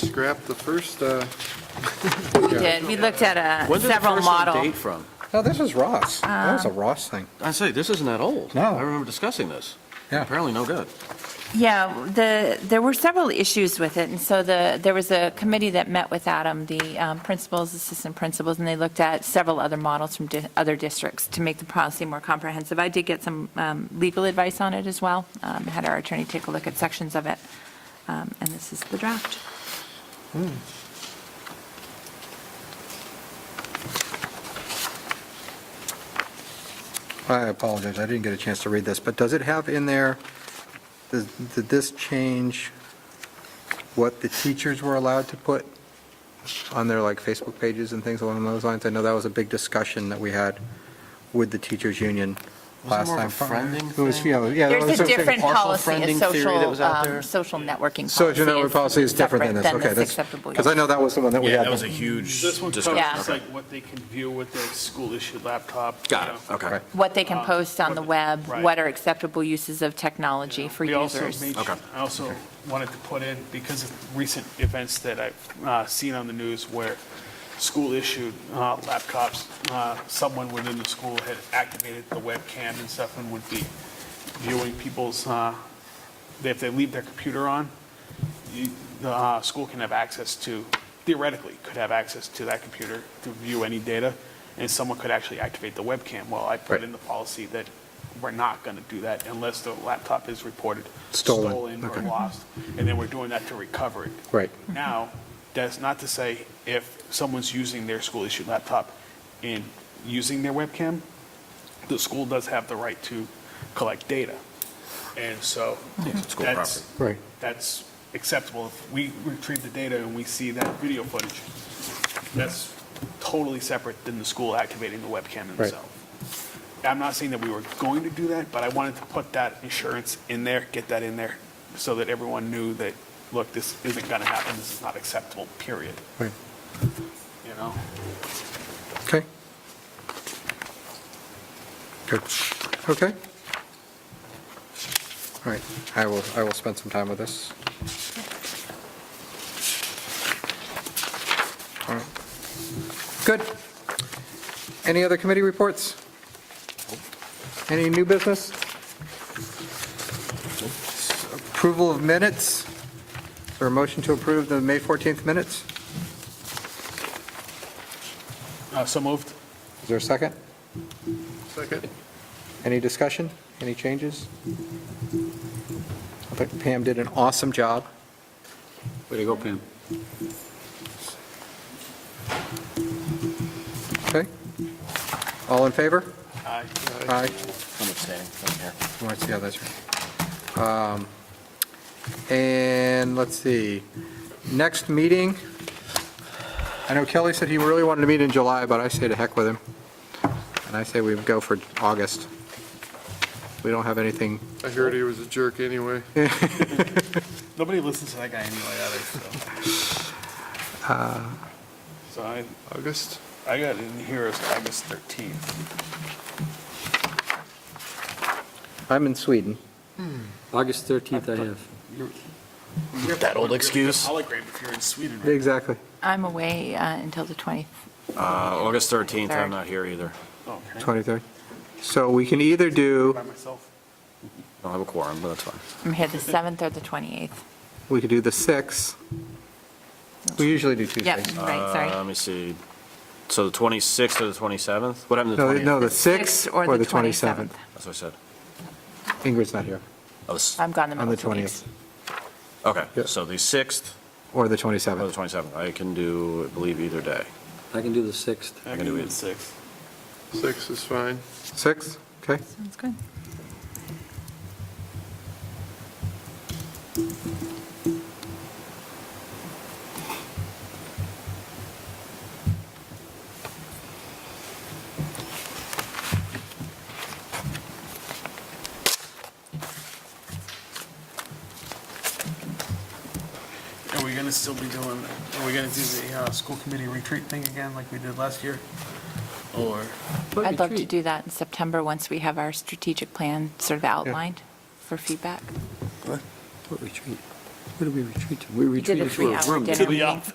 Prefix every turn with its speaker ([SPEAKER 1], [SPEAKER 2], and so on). [SPEAKER 1] Scrap the first, uh,
[SPEAKER 2] We did, we looked at uh,
[SPEAKER 3] When did the
[SPEAKER 2] several
[SPEAKER 3] first one
[SPEAKER 2] model.
[SPEAKER 3] date from?
[SPEAKER 4] No, this is Ross. That
[SPEAKER 2] Ah.
[SPEAKER 4] was a Ross thing.
[SPEAKER 3] I say, this isn't that old.
[SPEAKER 4] No.
[SPEAKER 3] I remember discussing this.
[SPEAKER 4] Yeah.
[SPEAKER 3] Apparently no good.
[SPEAKER 2] Yeah, the, there were several issues with it, and so the, there was a committee that met with Adam, the um, principals, assistant principals, and they looked at several other models from di- other districts to make the policy more comprehensive. I did get some um, legal advice on it as well, Um, had our attorney take a look at sections of it, Um, and this is the draft.
[SPEAKER 4] I apologize, I didn't get a chance to read this, but does it have in there, does- did this change what the teachers were allowed to put on their, like, Facebook pages and things along those lines? I know that was a big discussion that we had with the teachers' union last
[SPEAKER 3] Wasn't it
[SPEAKER 4] time.
[SPEAKER 3] more of a friending
[SPEAKER 4] It was,
[SPEAKER 3] thing?
[SPEAKER 4] you know, yeah. that was
[SPEAKER 2] There's a
[SPEAKER 4] something-
[SPEAKER 2] different
[SPEAKER 3] partial
[SPEAKER 2] policy, a
[SPEAKER 3] friending theory that was
[SPEAKER 2] social,
[SPEAKER 3] out
[SPEAKER 2] um,
[SPEAKER 3] there?
[SPEAKER 2] social networking policy.
[SPEAKER 4] Social network policy is different than this,
[SPEAKER 2] Separate
[SPEAKER 4] okay.
[SPEAKER 2] than this acceptable
[SPEAKER 4] Because I
[SPEAKER 2] use.
[SPEAKER 4] know that was the one that we
[SPEAKER 5] Yeah,
[SPEAKER 4] had.
[SPEAKER 5] that was a huge
[SPEAKER 6] This one
[SPEAKER 5] discussion.
[SPEAKER 2] Yeah.
[SPEAKER 6] covers like what they can view with their school-issued laptop.
[SPEAKER 3] Got
[SPEAKER 6] you
[SPEAKER 3] it,
[SPEAKER 6] know.
[SPEAKER 3] okay.
[SPEAKER 4] Right.
[SPEAKER 2] What they can
[SPEAKER 6] Um,
[SPEAKER 2] post on the
[SPEAKER 6] what-
[SPEAKER 2] web,
[SPEAKER 6] right.
[SPEAKER 2] what are acceptable uses of technology for
[SPEAKER 6] We also
[SPEAKER 2] users.
[SPEAKER 6] made-
[SPEAKER 3] Okay.
[SPEAKER 6] I also wanted to put in, because of recent events that I've uh, seen on the news where school-issued uh, laptops, uh, someone within the school had activated the webcam and stuff and would be viewing people's, uh, if they leave their computer on, you- the uh, school can have access to, theoretically, could have access to that computer to view any data, and someone could actually activate the webcam. Well, I put
[SPEAKER 4] Right.
[SPEAKER 6] in the policy that we're not going to do that unless the laptop is reported
[SPEAKER 4] Stolen,
[SPEAKER 6] or
[SPEAKER 4] okay.
[SPEAKER 6] lost, and then we're doing that to recover it.
[SPEAKER 4] Right.
[SPEAKER 6] Now, that's not to say if someone's using their school-issued laptop and using their webcam, the school does have the right to collect data. And so
[SPEAKER 3] it's school
[SPEAKER 6] that's,
[SPEAKER 4] Right.
[SPEAKER 6] that's acceptable. If we retrieve the data and we see that video footage, that's totally separate than the school activating the webcam themselves. I'm not saying that we were going to do that, but I wanted to put that insurance in there, get that in there, so that everyone knew that, look, this isn't going to happen, this is not acceptable, period,
[SPEAKER 4] Right.
[SPEAKER 6] you know?
[SPEAKER 4] Okay. Good. Okay. All right, I will, I will spend some time with this. All right. Good. Any other committee reports? Any new business? Approval of minutes? Is there a motion to approve the May 14th minutes?
[SPEAKER 6] Uh, So moved.
[SPEAKER 4] Is there a second?
[SPEAKER 1] second.
[SPEAKER 4] Any discussion? Any changes? I think Pam did an awesome job.
[SPEAKER 3] Way to go, Pam.
[SPEAKER 4] Okay? All in favor?
[SPEAKER 6] Aye.
[SPEAKER 4] Aye.
[SPEAKER 3] I'm abstaining, I'm here.
[SPEAKER 4] You want to see how that's right? Um, And let's see, next meeting, I know Kelly said he really wanted to meet in July, but I say to heck with him. And I say we go for August. We don't have anything,
[SPEAKER 1] I heard he was a jerk anyway.
[SPEAKER 6] Nobody listens to that guy anyway either, so. So I,
[SPEAKER 1] August?
[SPEAKER 6] I got in here as August 13th.
[SPEAKER 4] I'm in Sweden.
[SPEAKER 7] August 13th I have.
[SPEAKER 3] That old excuse.
[SPEAKER 6] I'll agree if you're in Sweden. right?
[SPEAKER 4] Exactly.
[SPEAKER 2] I'm away uh, until the 20th.
[SPEAKER 3] Uh, August 13th,
[SPEAKER 2] Third.
[SPEAKER 3] I'm not here either.
[SPEAKER 6] Oh, can I
[SPEAKER 4] 23rd. So we can either do,
[SPEAKER 6] by myself?
[SPEAKER 3] I don't have a quorum, but that's fine.
[SPEAKER 2] I'm here the 7th or the 28th.
[SPEAKER 4] we could do the 6th. We usually do
[SPEAKER 2] Yep,
[SPEAKER 4] Tuesdays.
[SPEAKER 2] right,
[SPEAKER 3] Uh,
[SPEAKER 2] sorry.
[SPEAKER 3] Let me see. So the 26th or the 27th? What happened to
[SPEAKER 4] No,
[SPEAKER 3] the
[SPEAKER 4] no,
[SPEAKER 3] 20th?
[SPEAKER 4] the 6th or the 27th.
[SPEAKER 3] That's what I said.
[SPEAKER 4] Ingrid's not here,
[SPEAKER 3] I was-
[SPEAKER 2] I'm gone the
[SPEAKER 4] on
[SPEAKER 2] middle
[SPEAKER 4] the
[SPEAKER 2] of two weeks.
[SPEAKER 4] 20th,
[SPEAKER 3] Okay,
[SPEAKER 4] Yeah.
[SPEAKER 3] so the 6th
[SPEAKER 4] or the
[SPEAKER 3] or the
[SPEAKER 4] 27th.
[SPEAKER 3] 27th. I can do, I believe, either day.
[SPEAKER 7] I can do the 6th.
[SPEAKER 3] I can do it.
[SPEAKER 6] six.
[SPEAKER 1] Six is fine.
[SPEAKER 4] 6th, okay.
[SPEAKER 2] Sounds good.
[SPEAKER 6] Are we gonna still be doing, are we gonna do the, uh, school committee retreat thing again like we did last year? Or?
[SPEAKER 2] I'd love to do that in September, once we have our strategic plan sort of outlined for feedback.
[SPEAKER 7] What retreat?
[SPEAKER 8] Where do we retreat to? We
[SPEAKER 7] We did a
[SPEAKER 8] retreated to a room.
[SPEAKER 7] three-hour dinner
[SPEAKER 2] To the
[SPEAKER 7] meeting.
[SPEAKER 2] office.